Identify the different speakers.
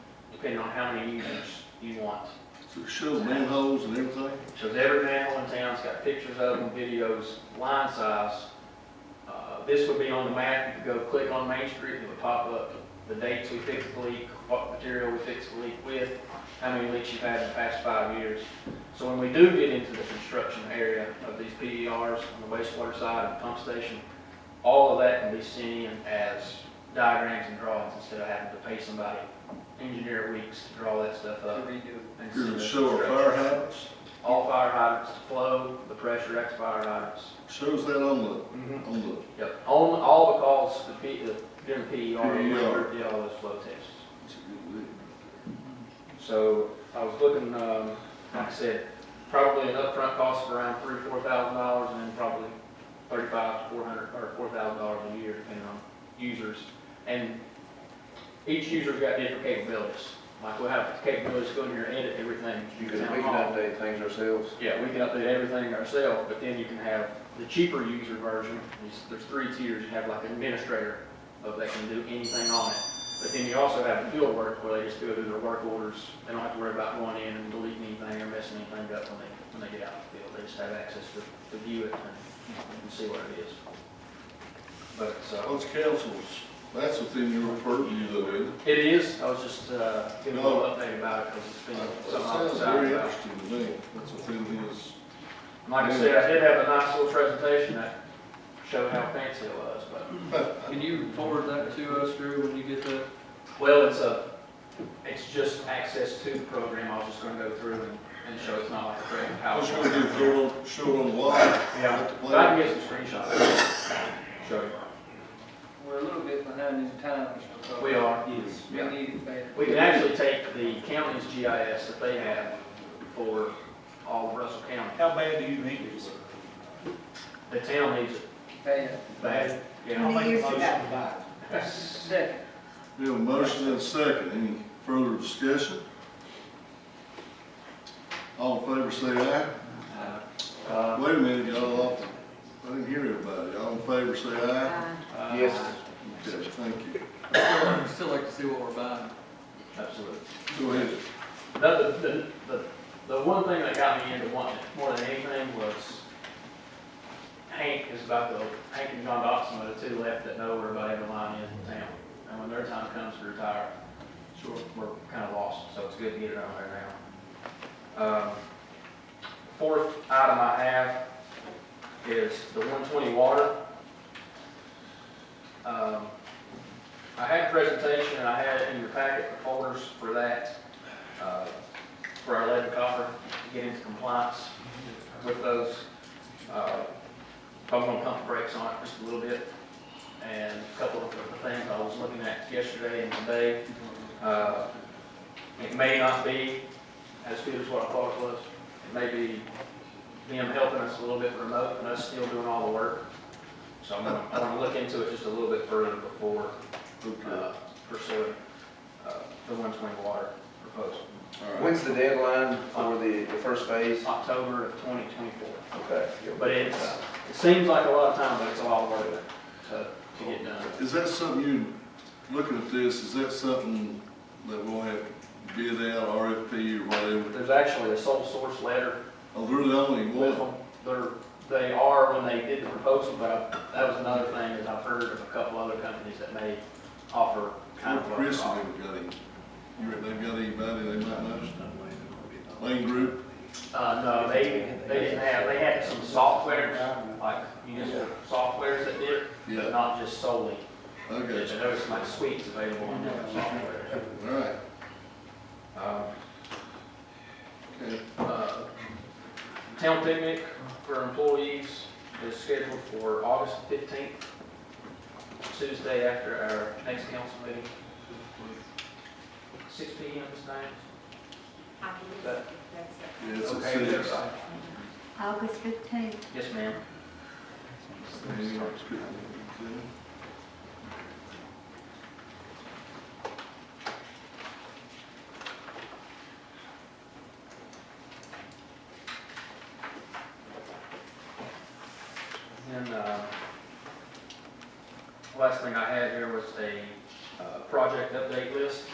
Speaker 1: depending on how many users you want.
Speaker 2: So show manholes and everything?
Speaker 1: Shows every manhole in town's got pictures of them, videos, line size. Uh, This would be on the map, you could go click on Main Street, it would pop up the dates we fixed the leak, what material we fixed the leak with, how many leaks you've had in the past five years. So when we do get into the construction area of these PDRs on the wastewater side and pump station, all of that can be seen as diagrams and drawings instead of having to pay somebody, engineer weeks to draw that stuff up. and see
Speaker 2: You're
Speaker 1: the
Speaker 2: gonna show our
Speaker 1: construction.
Speaker 2: fire hydrants,
Speaker 1: All fire hydrants to flow, the pressure X fire hydrants.
Speaker 2: shows that on the, on the,
Speaker 1: Yep, on, all the calls, the P, uh, the, during PER, we
Speaker 2: PER.
Speaker 1: did all those flow tests.
Speaker 2: it's a good lick right
Speaker 1: So I was looking, um, like I said, probably an upfront cost of around three, four thousand dollars and then probably thirty-five to four hundred, or four thousand dollars a year depending on users. And each user's got different capabilities. Like we'll have the capabilities to go in here and edit everything.
Speaker 3: We
Speaker 1: Town
Speaker 3: can we can
Speaker 1: hall.
Speaker 3: update things ourselves.
Speaker 1: Yeah, we can update everything ourselves, but then you can have the cheaper user version, there's, there's three tiers, you have like an administrator of that can do anything on it. But then you also have the field work where they just go do their work orders, they don't have to worry about going in and deleting anything or messing anything up when they, when they get out in the field, they just have access to, to view it and, and see what it is. But,
Speaker 2: there.
Speaker 1: uh,
Speaker 2: Those councils, that's within your purview though, isn't it?
Speaker 1: it is, I was just, uh, giving a little update about it, because it's been
Speaker 2: That
Speaker 1: something I was
Speaker 2: Uh, sounds
Speaker 1: excited
Speaker 2: very
Speaker 1: about.
Speaker 2: interesting to me, that's within his,
Speaker 1: Like I said, I did have a nice little presentation that showed how fancy it was, but,
Speaker 4: Can you forward that to us, Drew, when you get that?
Speaker 1: well, it's a, it's just access to the program, I was just gonna go through and, and show, it's not like a great PowerPoint.
Speaker 2: I was gonna do throw, it- show it on the wall.
Speaker 1: Yeah,
Speaker 2: At the
Speaker 1: but I
Speaker 2: plant.
Speaker 1: can get some screenshots. Show you.
Speaker 5: We're a little bit behind in times because.
Speaker 1: We are,
Speaker 5: We
Speaker 1: yeah.
Speaker 5: need it bad.
Speaker 1: We can actually take the county's GIS that they have for all of Russell County.
Speaker 6: How bad do you need it?
Speaker 1: The town needs it
Speaker 5: Bad.
Speaker 1: bad,
Speaker 6: I'll
Speaker 1: yeah.
Speaker 6: make a
Speaker 7: years
Speaker 6: motion
Speaker 7: ago.
Speaker 6: to buy it.
Speaker 5: Second,
Speaker 2: We have a motion and a second, any further discussion? All in favor, say aye.
Speaker 1: Uh,
Speaker 2: Wait a minute, y'all, off. I didn't hear everybody, all in favor, say aye.
Speaker 1: uh,
Speaker 3: Yes.
Speaker 2: Okay, thank you.
Speaker 4: I'd still like to see what we're buying.
Speaker 1: Absolutely.
Speaker 2: Go ahead.
Speaker 1: The, the, the, the one thing that got me into wanting it more than anything was Hank is about the, Hank and John Dotson are the two left that know where everybody in the line is in town. And when their time comes to retire, sure, we're kind of lost, so it's good to get it on there now. Um, Fourth item I have is the one twenty water. Um, I had a presentation and I had it in your packet, the folders for that uh, for our lead and copper, to get into compliance with those. Uh, Probably gonna pump the brakes on it just a little bit. And a couple of the things I was looking at yesterday and today, uh, it may not be as good as what I thought it was. It may be them helping us a little bit remote and us still doing all the work. So I'm gonna, I'm gonna look into it just a little bit further before
Speaker 2: Okay,
Speaker 1: uh, pursuing uh, the 120 water proposal.
Speaker 2: all right.
Speaker 3: When's the deadline for the, the first phase?
Speaker 1: October of 2024.
Speaker 3: Okay.
Speaker 1: But it's, it seems like a lot of time, but it's a lot of work to, to get done.
Speaker 2: Is that something you, looking at this, is that something that we'll have to bid out, RFP or whatever?
Speaker 1: There's actually a sole source letter
Speaker 2: Oh, they're the only
Speaker 1: with
Speaker 2: one,
Speaker 1: them. They're, they are when they did the proposal, but I- that was another thing, is I've heard of a couple other companies that may offer kind of. what
Speaker 2: Chris
Speaker 1: they're
Speaker 2: has
Speaker 1: offering.
Speaker 2: never got any, you reckon they've got anybody they might know? Lane Group,
Speaker 1: Uh, no, they, they didn't have, they had some softwares, like municipal softwares that did, it, but
Speaker 2: yeah,
Speaker 1: not just solely.
Speaker 2: I got you,
Speaker 1: There was some like suites available on that software.
Speaker 2: all right,
Speaker 1: Um,
Speaker 2: okay.
Speaker 1: Uh, Town picnic for employees is scheduled for August fifteenth, Tuesday after our next council meeting. Six P M, Ms. Nance?
Speaker 2: Yeah, it's a
Speaker 1: Okay, with
Speaker 2: six.
Speaker 1: everybody?
Speaker 7: August fifteenth.
Speaker 1: Yes, ma'am. And, uh, last thing I had here was a, uh, project update list.